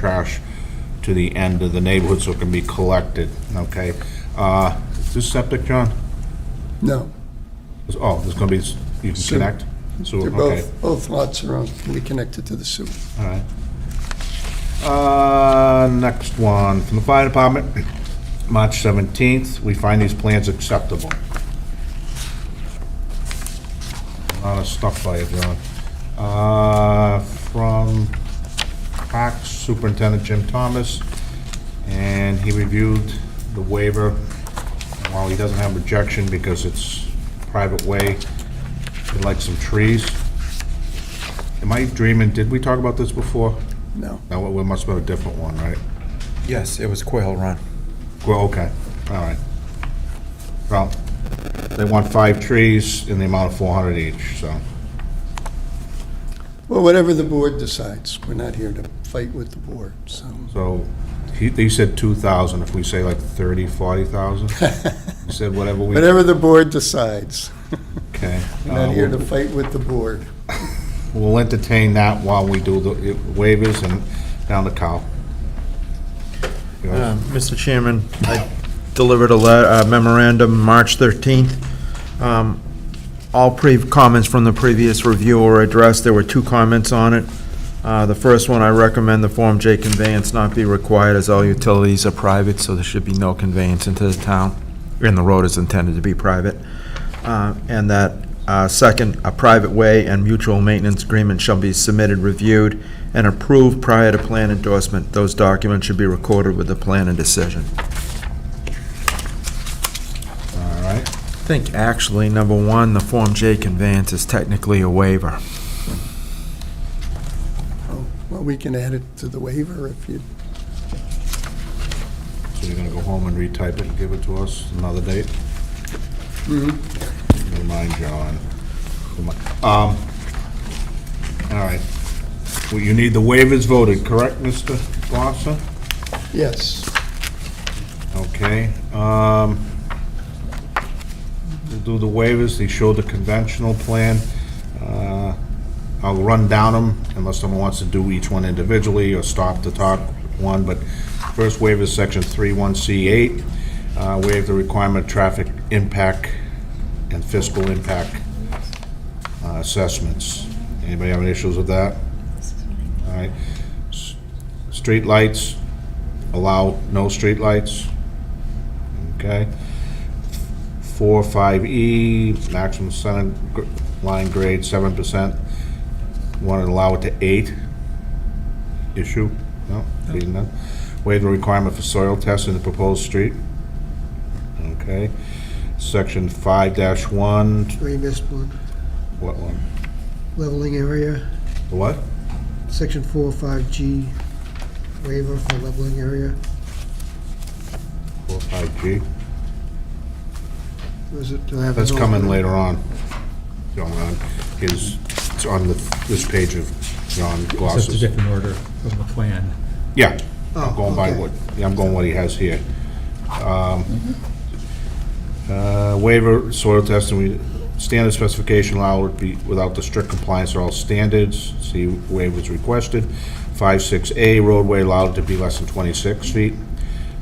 trash to the end of the neighborhood so it can be collected, okay? Uh, Is this septic, John? No, Is- Oh, there's gonna be, s- you can Sewer. connect? Sewer, they're okay, both, both lots are on, can be connected to the sewer. all right. Uh, Next one, from the fire department, March 17th, we find these plans acceptable. A lot of stuff by you, John. Uh, From Parks Superintendent Jim Thomas, and he reviewed the waiver. And While he doesn't have rejection because it's private way, he'd like some trees. Am I dreaming? Did we talk about this before? No, No, it must have been a different one, right? Yes, it was Quail Run. Well, okay, all right. Well, they want five trees in the amount of 400 each, so, well, whatever the board decides, we're not here to fight with the board, so. so, he, they said 2,000, if we say like 30, 40,000? He said whatever we, Whatever the board decides, okay. we're not Uh, here to fight with the board. We'll entertain that while we do the waivers and down the cow. You know, Um, Uh, Mr. Chairman, I delivered a le- uh, memorandum March 13th. Um, All pre, comments from the previous review were addressed. There were two comments on it. Uh, The first one, I recommend the Form J conveyance not be required as all utilities are private, so there should be no conveyance into the town, and the road is intended to be private. Uh, And that, uh, second, a private way and mutual maintenance agreement shall be submitted, reviewed, and approved prior to plan endorsement. Those documents should be recorded with the plan and decision. All right, I think actually, number one, the Form J conveyance is technically a waiver. Oh, Well, we can add it to the waiver if you, so you're gonna go home and retype it and give it to us another date? Never mind, John. Come on. Um, all right. Well, you need the waivers voted, correct, Mr. Glosser? yes. Okay, um, we'll do the waivers, they show the conventional plan. Uh, I'll run down them unless someone wants to do each one individually or stop the top one, but first waiver is section 31C8, uh, waive the requirement of traffic impact and fiscal impact uh, assessments. Anybody have any issues with that? All right. S- Streetlights, allow no streetlights. Okay. Four, five E, maximum center gr- line grade, seven percent. Want to allow it to eight? Issue? No, reading that. Waive the requirement for soil tests in the proposed street. Okay. Section five dash one, We missed one, what one? leveling area, The What? section four, five G waiver for leveling area. Four, five G? Was it, do I have? That's an coming alternate? later on. John, on his, it's on the, this page of John It's just a Glosses. different order from the plan. Yeah, Oh, I'm going by okay. what, yeah, I'm going what he has here. Um, Mm-hmm. uh, Waiver, soil testing, we, standard specification allowed would be without the strict compliance of all standards. See waivers requested. Five, six A roadway allowed to be less than twenty-six feet,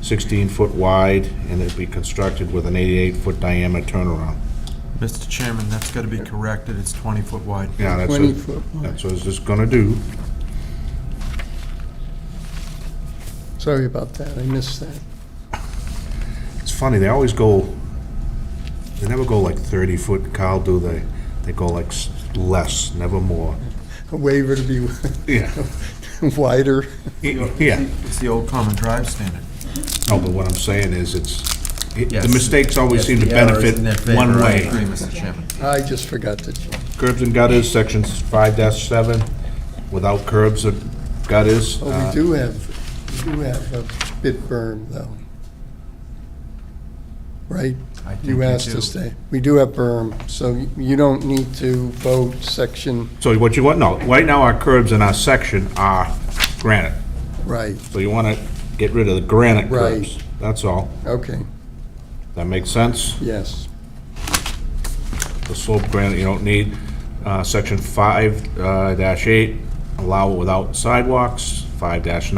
sixteen foot wide, and it'd be constructed with an eighty-eight foot diameter turnaround. Mr. Chairman, that's got to be corrected. It's 20-foot wide. Yeah, that's what- 20-foot wide. That's what it's just gonna do. Sorry about that, I missed that. It's funny, they always go, they never go like 30 foot, Kyle, do they? They go like s- less, never more. A waiver to be Yeah. wider. Yeah. It's the old common drive standard. No, but what I'm saying is, it's, it- the Yes. mistakes always seem to The error is benefit in their favor. one I way. agree, Mr. Chairman. I just forgot that. Curbs and gutters, sections 5-7, without curbs or gutters. Oh, uh, we do have, we do have a bit berm, though. Right? I think You we asked do. us to, we do have berm, so you don't need to vote section, So what you want, no, right now our curbs in our section are granite. right, So you wanna get rid of the granite Right. curbs. That's all. okay, That makes sense? yes. the slope granite you don't need. Uh, Section 5-8, dash eight, allow it without sidewalks. 5-9, dash